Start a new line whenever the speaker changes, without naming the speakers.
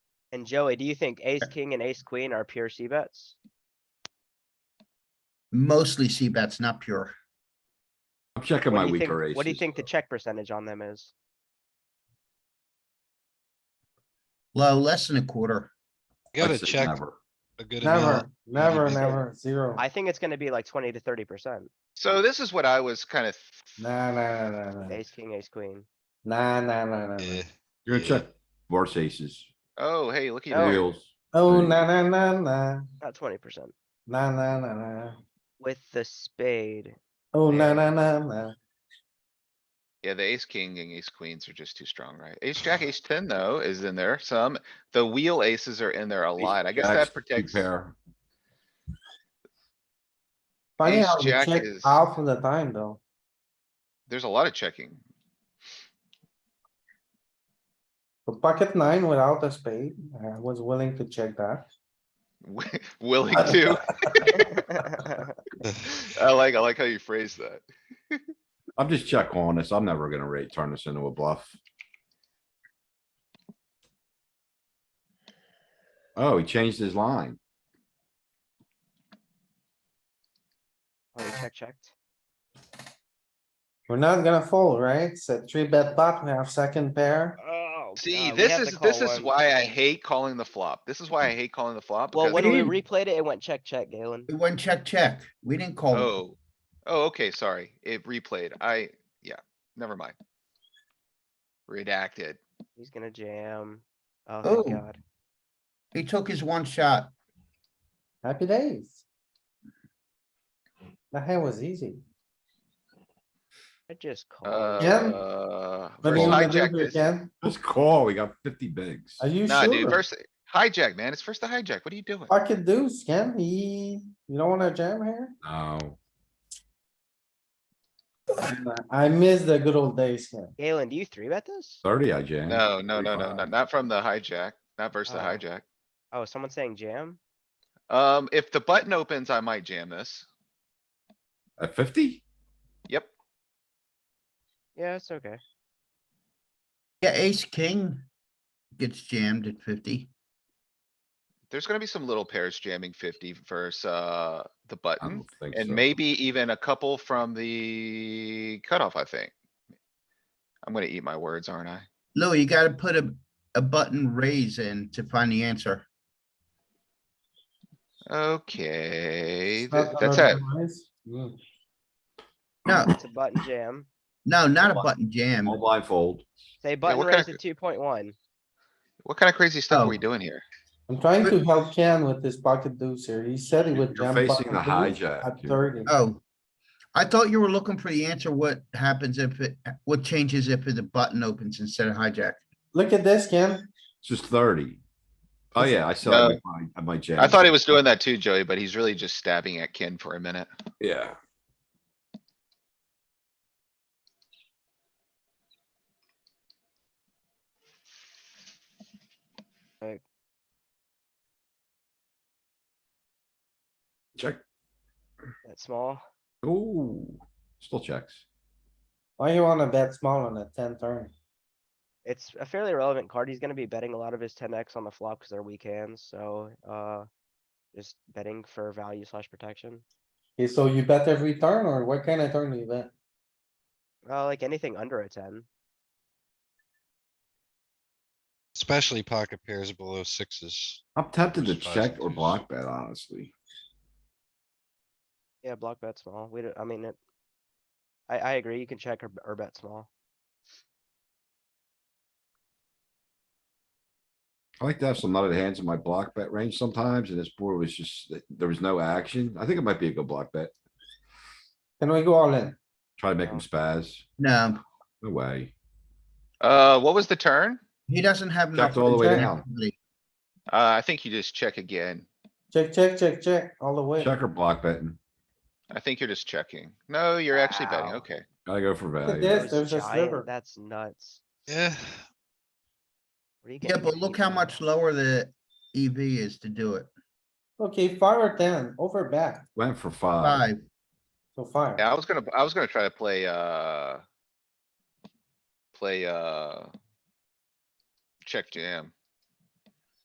And Joey, do you think ace, king and ace queen are pure C bets?
Mostly C bets, not pure.
I'm checking
What do
my
you think-
weaker aces.
What do you think the
though.
check percentage on them is?
Low, less than a quarter.
Gotta
I'd say
check
never.
a good
Never,
amount.
never, never, zero.
I think it's gonna be like twenty to thirty percent.
So this is what I was kind of,
Nah, nah, nah, nah, nah.
Ace, king, ace, queen.
nah, nah, nah, nah, nah.
Yeah,
You're gonna
Yeah.
check worse aces,
oh, hey, look at you.
reels.
Oh,
Three.
nah, nah, nah, nah,
Not twenty percent.
nah, nah, nah, nah.
With the spade,
Oh, nah, nah, nah, nah.
Yeah, the ace, king and ace queens are just too strong, right? Ace, jack, ace ten though is in there some. The wheel aces are in there a lot. I guess
Jacks,
that
two
protects.
Pair,
Funny
Ace
how we
jack
check
is-
half of the time though.
There's a lot of checking.
But Pocket nine without a spade, I was willing to check that.
Wi- Willing to. I like, I like how you phrase that.
I'm just check on this, I'm never gonna rate, turn this into a bluff. Oh, he changed his line,
oh, you check, checked.
We're not gonna fold, right? It's a three bet pot. We have second pair.
Oh.
See,
God, we
this
have to
is, this
call one.
is
Mm.
why I hate calling the flop. This is why I hate calling the flop.
Well,
because-
when we replayed it, it went check, check, Galen.
It went check, check. We didn't call. it.
Oh, oh, okay, sorry. It replayed. I, yeah, never mind. Redacted.
He's gonna jam. Oh,
Oh.
thank god.
He took his one shot.
Happy days. That hand was easy.
I just called.
Uh.
Let me
versus
wanna
hijack
do it
this-
again.
let's call, we got fifty bigs.
Are you
Nah, dude,
sure?
first hijack, man. It's first the hijack. What are you doing?
Pocket deuce, can he? You don't wanna jam here?
No,
Nah, I miss the good old days here.
Galen, do you three bet this?
thirty I jammed.
No, no, no, no, no,
35.
not from the hijack, not versus the
Oh.
hijack.
Oh, someone's saying jam?
Um, if the button opens, I might jam this.
At fifty?
Yep.
Yeah, it's okay.
Yeah, ace, king gets jammed at fifty.
There's gonna be some little pairs jamming fifty versus, uh, the button.
think
And
so.
maybe even a couple from the cutoff, I think. I'm gonna eat my words, aren't I?
Louis, you gotta put a, a button raise in to find the answer.
Okay,
It's not
th- that's it.
otherwise. Mm.
No,
It's a button jam.
no, not a button jam.
All blindfold,
They button
what kinda
raised to two point one.
What kind of crazy stuff are we
Oh.
doing here?
I'm trying to help Ken with this pocket deuce here. He said he
You're-
would
you're
jam.
facing
pocket
the
deuce
hijack
At
here.
thirty.
Oh, I thought you were looking for the answer. What happens if it, what changes if the button opens instead of hijack?
Look at this, Ken.
it's just thirty. Oh yeah, I said I
No.
would find- I might jam.
I thought he was doing that too, Joey, but he's really just stabbing at Ken for a minute.
Yeah.
Right.
Check.
That's small.
Ooh, still checks.
Why you wanna bet small on a ten turn?
It's a fairly relevant card. He's gonna be betting a lot of his ten X on the flop because they're weak hands, so, uh. Just betting for value slash protection.
Okay, so you bet every turn or what kind of turn do you bet?
Uh, like anything under a ten.
especially pocket pairs below sixes.
I'm tempted to
Just buys
check or
these.
block bet, honestly.
Yeah, block bet small. We don't, I mean, it. I, I agree. You can check or, b- or bet small.
I like to have some nutted hands in my block bet range sometimes, and this board was just, there was no action. I think it might be a good block bet.
Can we go all in?
Try to make him
Yeah.
spaz.
No,
No way.
Uh, what was the turn?
he doesn't have. enough
Checked all the way
return
down.
equity.
Uh, I think you just check again.
Check, check, check, check, all the way.
Check or block betting.
I think you're just checking. No, you're actually betting.
Wow.
Okay.
Gotta go for
this.
value.
Those
there's a
giant-
sliver.
That's nuts. Where
Yeah,
are you
Yeah,
getting
but
your
look how
EV?
much lower the EV is to do it.
Okay, five or ten, over bet,
Went for five.
Five,
so five.
Yeah, I was gonna, I was gonna try to play, uh. Play, uh. Check jam.